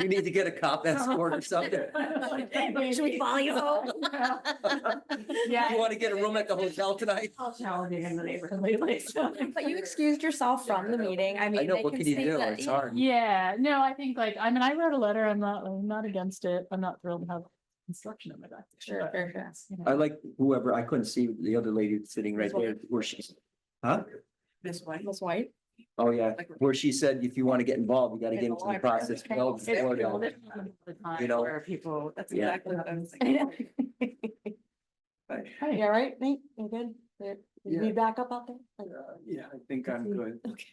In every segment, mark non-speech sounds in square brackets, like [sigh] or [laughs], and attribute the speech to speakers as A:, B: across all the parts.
A: You need to get a cop escort or something.
B: [laughs]
C: Should we follow
A: [laughs]
C: you home?
A: You
C: Yeah.
A: want to get a room at the hotel tonight?
C: I'll
D: Oh,
C: validate in the neighborhood lately. so.
D: But you excused yourself from the meeting. I mean.
A: I know,
D: they
A: what can you
D: say
A: do?
D: that-
A: It's hard.
B: Yeah, no, I think like, I mean, I wrote a letter. I'm not, I'm not against it. I'm not thrilled to have instruction in my back.
D: Sure, sure, sure.
A: I like whoever, I couldn't see the other lady sitting right there where she's, huh?
C: This way.
D: Miss White?
A: Oh, yeah, where she said, if you want to get involved, you got to get into the process. well before that. You
B: You
A: know,
C: Where people, that's
A: Yeah.
C: exactly what I was
B: [laughs]
C: thinking. But
D: Yeah, right, Nate, you good? There- you
E: Yeah.
D: Be back up out there? Like,
E: Uh, Yeah, I think I'm good.
D: Okay.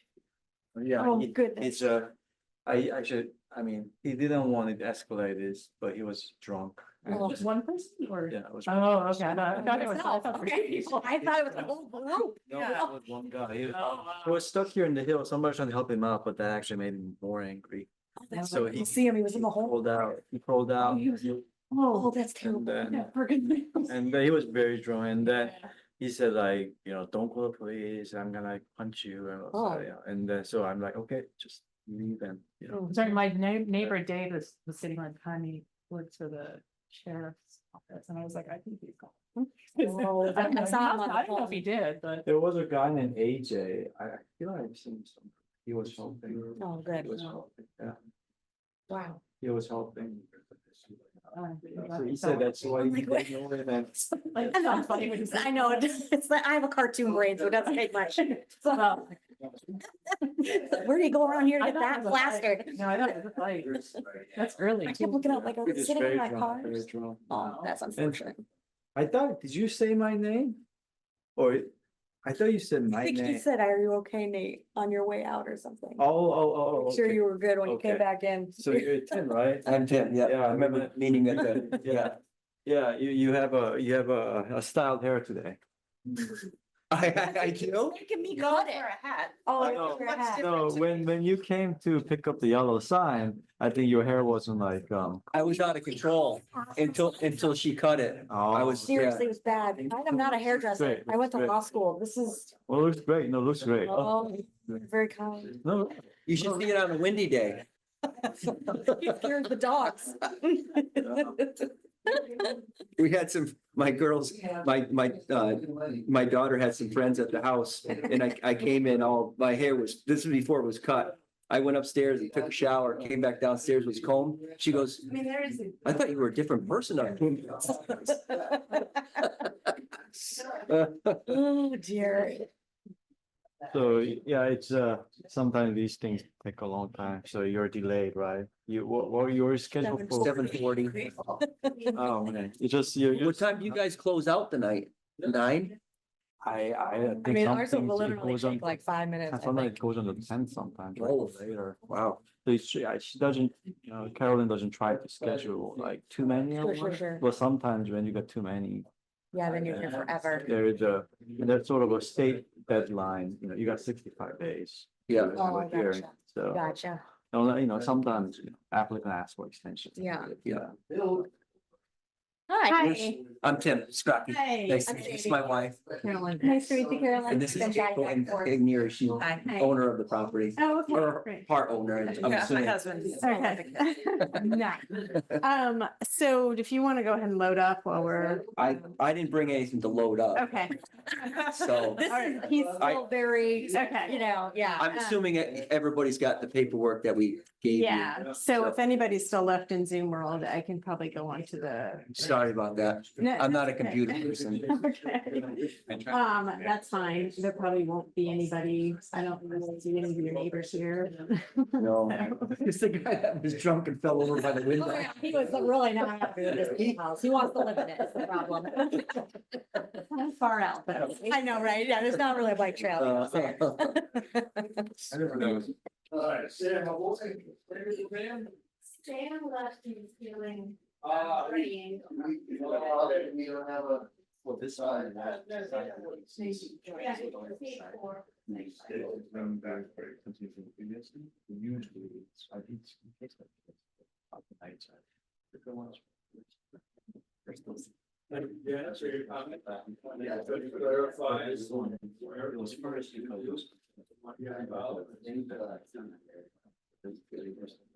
E: Yeah,
D: Oh,
E: it-
D: goodness.
E: it's a, I, I should, I mean, he didn't want it escalated, but he was drunk. and
D: Oh,
E: just-
B: One person or?
E: Yeah. it was-
B: Oh, okay. I thought- I thought it was- I
D: Yourself,
B: thought three
D: okay.
B: people.
D: I thought it was the whole group. [laughs]
E: No,
C: Yeah.
E: it was one guy. He
B: Oh,
E: he
B: wow.
E: was stuck here in the hill. Somebody was trying to help him out, but that actually made him more angry.
D: Oh, that's
E: So
D: right.
E: he-
D: You See him, he was in the
E: He
D: whole.
E: Pulled out, he pulled out.
B: he was-
E: and-
D: Oh,
B: Oh,
D: that's
E: And
D: terrible.
E: then,
B: yeah, for good. news.
E: and then he was very drunk and
A: uh,
E: then he said like, you know, don't call the police. I'm gonna punch you. And, I was like,
D: Oh.
E: yeah. and then, so I'm like, okay, just leave and, you know.
D: Oh,
B: Sorry, my neigh- neighbor Dave was, was sitting on tiny, looked for the sheriff's office and I was like, I think he's
D: [laughs]
B: gone.
D: Oh,
B: I don't know.
D: I saw him on the
B: I don't know if he
D: phone.
B: did, but.
E: There was a guy named AJ. I I feel like I've seen some. He was helping.
D: Oh,
E: He
D: good.
E: was helping. Yeah,
D: Wow.
E: he was helping.
D: Oh,
B: uh,
E: So he said that's why.
D: I'm
E: he
D: like, wait.
E: didn't know it and-
B: Like,
D: [laughs] I know,
B: sounds funny when you say
D: I know,
B: that.
D: it's like, I have a cartoon brain, so it doesn't take
B: [laughs]
D: much. So,
B: Well,
D: [laughs] Where do you go around here to
B: I
D: get
B: thought
D: that
B: it was like-
D: plastered?
B: No, I don't, it's like,
D: [laughs]
B: that's early.
D: I kept looking up like, I
E: He
D: was
E: was
D: sitting in
E: very
D: my
E: drunk,
D: car.
E: very drunk.
D: Oh, that's unfortunate.
E: I thought, did you say my name? Or I thought you said
D: I
E: my
D: think you
E: name.
D: said, are you okay, Nate, on your way out or something?
E: Oh, oh, oh, oh.
D: Make sure
E: okay.
D: you were good when you came
E: Okay.
D: back in.
E: So you're
D: [laughs]
E: Tim, right?
A: I'm Tim, yeah,
E: Yeah,
A: I remember
E: remember-
A: meeting at the, [laughs] yeah. [laughs]
E: Yeah, [laughs] yeah, you, you have a, you have a, a styled hair
D: [laughs]
E: today.
A: I, I, I do.
D: Making me
C: Got
D: got
C: it.
D: it.
C: a hat.
D: Oh,
E: I know.
D: your hat.
E: No, when, when you came to pick up the yellow sign, I think your hair wasn't like, um.
A: I was out of control until, until she cut it.
E: oh.
A: I was-
D: Seriously, it was bad. I am not a hairdresser.
E: Great,
D: I went to
E: great.
D: law school. This is,
E: Well, it looks great. No, it looks great. Oh,
D: oh, very kind.
E: No,
A: You should see it on a windy day.
D: You cured the dogs. [laughs]
A: We had some, my girls, my, my, uh, my daughter had some friends at the house and I, I came in all, my hair was, this was before it was cut. I went upstairs and took a shower, came back downstairs, was combed. She goes,
C: I mean, there is. a-
A: I thought you
D: [laughs]
A: were a different person. up here."
D: Oh, dear.
E: so, yeah, it's, uh, sometimes these things take a long time, so you're delayed, right? You, what, what you were scheduled for?
A: [laughs] Seven forty.
E: Oh, man, you just, you, you,
A: What time do you guys close out tonight? Nine?
E: I, I
D: I mean,
E: think
D: ours will
E: something
D: literally
E: goes on.
D: take like five minutes. I
E: Sometimes
D: think.
E: it goes on the ten sometimes, or
A: Oh.
E: later.
A: Wow.
E: So she, I- she doesn't, you know, Carolyn doesn't try to schedule like too many.
D: Sure,
E: hours,
D: sure, sure.
E: But sometimes when you get too many,
D: Yeah, then you're here forever.
E: there is a, and that's sort of a state deadline, you know, you got sixty-five days. to
A: Yeah.
E: do
D: Oh,
E: a hearing,
D: gotcha.
E: So,
D: Gotcha.
E: although, you know, sometimes you know, applicant asks for extension.
D: Yeah.
A: Yeah.
D: Hi.
A: I'm Tim Scrappy. Nice to
D: I'm
A: meet you. It's
D: Sadie.
A: my wife.
C: Carolyn.
D: Nice to meet you, Carolyn.
A: And this is
D: Been back
A: April
D: and forth.
A: Ignier. She's
D: Hi. Hi.
A: owner of the property.
F: Oh, okay,
A: Or
F: great.
A: part owner, I'm
C: Yeah, my
A: assuming.
C: husband.
F: Okay. Nice. Um, so if you want to go ahead and load up while we're,
A: I, I didn't bring anything to load up, [laughs]
F: okay, [laughs]
A: so
D: This
F: All
D: is,
F: right.
D: he's
A: I-
D: still very,
F: Okay.
D: you know, yeah.
F: Um,
A: I'm assuming e- everybody's got the paperwork that we gave you.
F: yeah. So if anybody's still left in Zoom world, I can probably go on to the.
A: Sorry about that.
F: No,
A: I'm not a
F: that's okay.
A: computer person.
F: Okay. [laughs] Um, that's fine. There probably won't be anybody. I don't really see any of your neighbors here.
A: No. [laughs] It's the guy that was drunk and fell over by the
D: Oh,
A: window.
D: yeah, He was really not happy with this house. He wants to live in it, is the problem. [laughs]
F: Not Far out, but.
D: I know, right? Yeah, there's not really a bike trail.
A: Uh,
D: out there.
A: [laughs]
G: Sam left you feeling. Uh,
E: Ah.
G: worrying.
E: Well, this side.
G: Yeah, you can see it for-
E: Yeah, so your comment. Yeah, so you clarify this one, where it uh, was first, you know, it was- Yeah, well, I think that I've done that.